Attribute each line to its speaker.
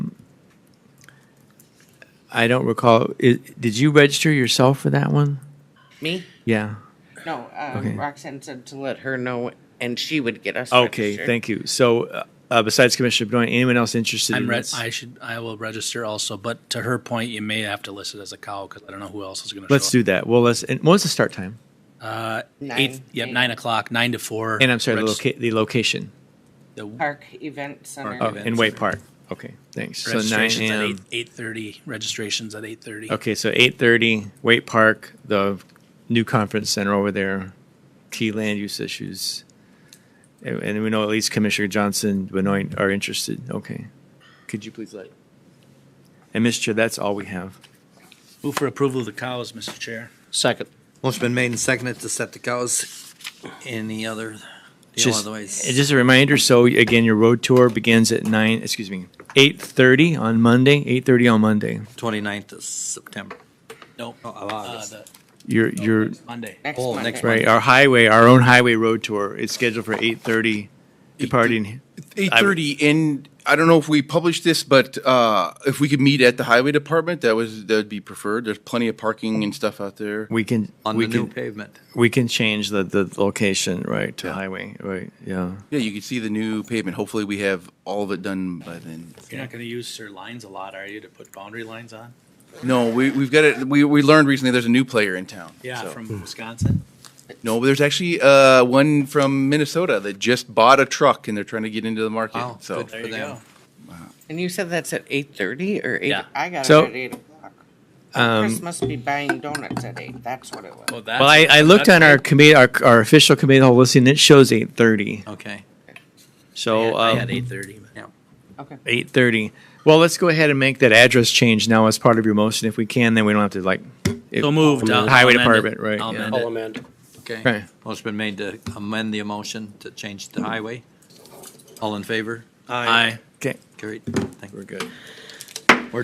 Speaker 1: I don't recall. i did you register yourself for that one?
Speaker 2: Me?
Speaker 1: Yeah.
Speaker 2: No, um,
Speaker 1: Okay.
Speaker 2: Roxanne said to let her know, and she would get us.
Speaker 1: Okay,
Speaker 2: registered.
Speaker 1: thank you. So, uh, uh, besides Commissioner Benoit, anyone else interested
Speaker 3: I'm
Speaker 1: in
Speaker 3: re-
Speaker 1: this?
Speaker 3: I should, I will register also, but to her point, you may have to list it as a cow because I don't know who else is going to
Speaker 1: Let's do
Speaker 3: show up. Uh,
Speaker 1: that. Well, let's. And what's the start time?
Speaker 2: Nine.
Speaker 3: Eight, yep, nine o'clock, nine to four.
Speaker 1: And I'm sorry, the,
Speaker 3: Regis-
Speaker 1: loca- the location
Speaker 3: the
Speaker 2: Park Event Center.
Speaker 1: oh,
Speaker 3: Park event.
Speaker 1: in Way Park. Okay, thanks. So nine
Speaker 3: Registration's at
Speaker 1: a.m.
Speaker 3: eight, eight-thirty, registration's at eight-thirty.
Speaker 1: Okay, so eight thirty, Wait Park, the new conference center over there, key land use issues. And- And we know at least Commissioner Johnson, Benoit are interested. Okay. Could you please let? And Mr. Chair, that's all we have.
Speaker 3: Move for approval of the cows, Mr. Chair.
Speaker 4: Second.
Speaker 5: Motion been made and seconded to set the cows in the other deal
Speaker 1: Just,
Speaker 5: otherwise.
Speaker 1: and just a reminder, so again, your road tour begins at nine, excuse me, eight thirty on Monday, eight thirty on Monday.
Speaker 5: 29th of September.
Speaker 3: No.
Speaker 5: Oh, of
Speaker 3: uh,
Speaker 5: August.
Speaker 3: the-
Speaker 1: Your, your,
Speaker 3: Monday.
Speaker 2: Next
Speaker 5: Oh,
Speaker 2: Monday.
Speaker 5: next
Speaker 1: right, our highway, our own highway road tour is scheduled for eight thirty departing.
Speaker 6: Eight thirty in. I don't know if we published this, but uh, if we could meet at the highway department, that was that'd be preferred. There's plenty of parking and stuff out there.
Speaker 1: We can.
Speaker 5: On
Speaker 1: we
Speaker 5: the new
Speaker 1: can-
Speaker 5: pavement.
Speaker 1: We can change the, the location, right, to highway, right, yeah.
Speaker 6: Yeah, you can see the new pavement. Hopefully, we have all of it done by then.
Speaker 3: You're not going to use your lines a lot, are you, to put boundary lines on?
Speaker 6: No, we we've got it. We we learned recently there's a new player in town.
Speaker 3: Yeah,
Speaker 6: so-
Speaker 1: Hmm.
Speaker 3: from Wisconsin.
Speaker 6: no, but there's actually uh, one from Minnesota that just bought a truck and they're trying to get into the
Speaker 3: Oh,
Speaker 6: market.
Speaker 5: Wow,
Speaker 6: so
Speaker 5: good.
Speaker 3: There you
Speaker 5: them.
Speaker 3: go.
Speaker 2: And you said that's at eight thirty or eight?
Speaker 3: Yeah.
Speaker 2: I got
Speaker 1: So- um,
Speaker 2: it at eight o'clock. Chris must be buying donuts at eight. That's what it was.
Speaker 3: Well, that's-
Speaker 1: Well, I, I looked on our committee, our, our official committee of the whole listing, it shows eight thirty,
Speaker 5: Okay.
Speaker 1: so,
Speaker 3: I had
Speaker 1: um,
Speaker 3: eight thirty.
Speaker 2: okay.
Speaker 1: eight thirty. Well, let's go ahead and make that address change now as part of your motion, if we can, then we don't have to like. it-
Speaker 3: So moved. I'll-
Speaker 1: Highway
Speaker 3: I'll amend it.
Speaker 1: Department, right,
Speaker 3: I'll
Speaker 1: yeah.
Speaker 3: amend
Speaker 4: I'll
Speaker 3: it.
Speaker 4: amend.
Speaker 5: Okay.
Speaker 1: Okay.
Speaker 5: Motion been made to amend the motion to change the highway. All in favor?
Speaker 3: Aye.
Speaker 1: Okay,
Speaker 5: Carried. Thank
Speaker 1: we're good.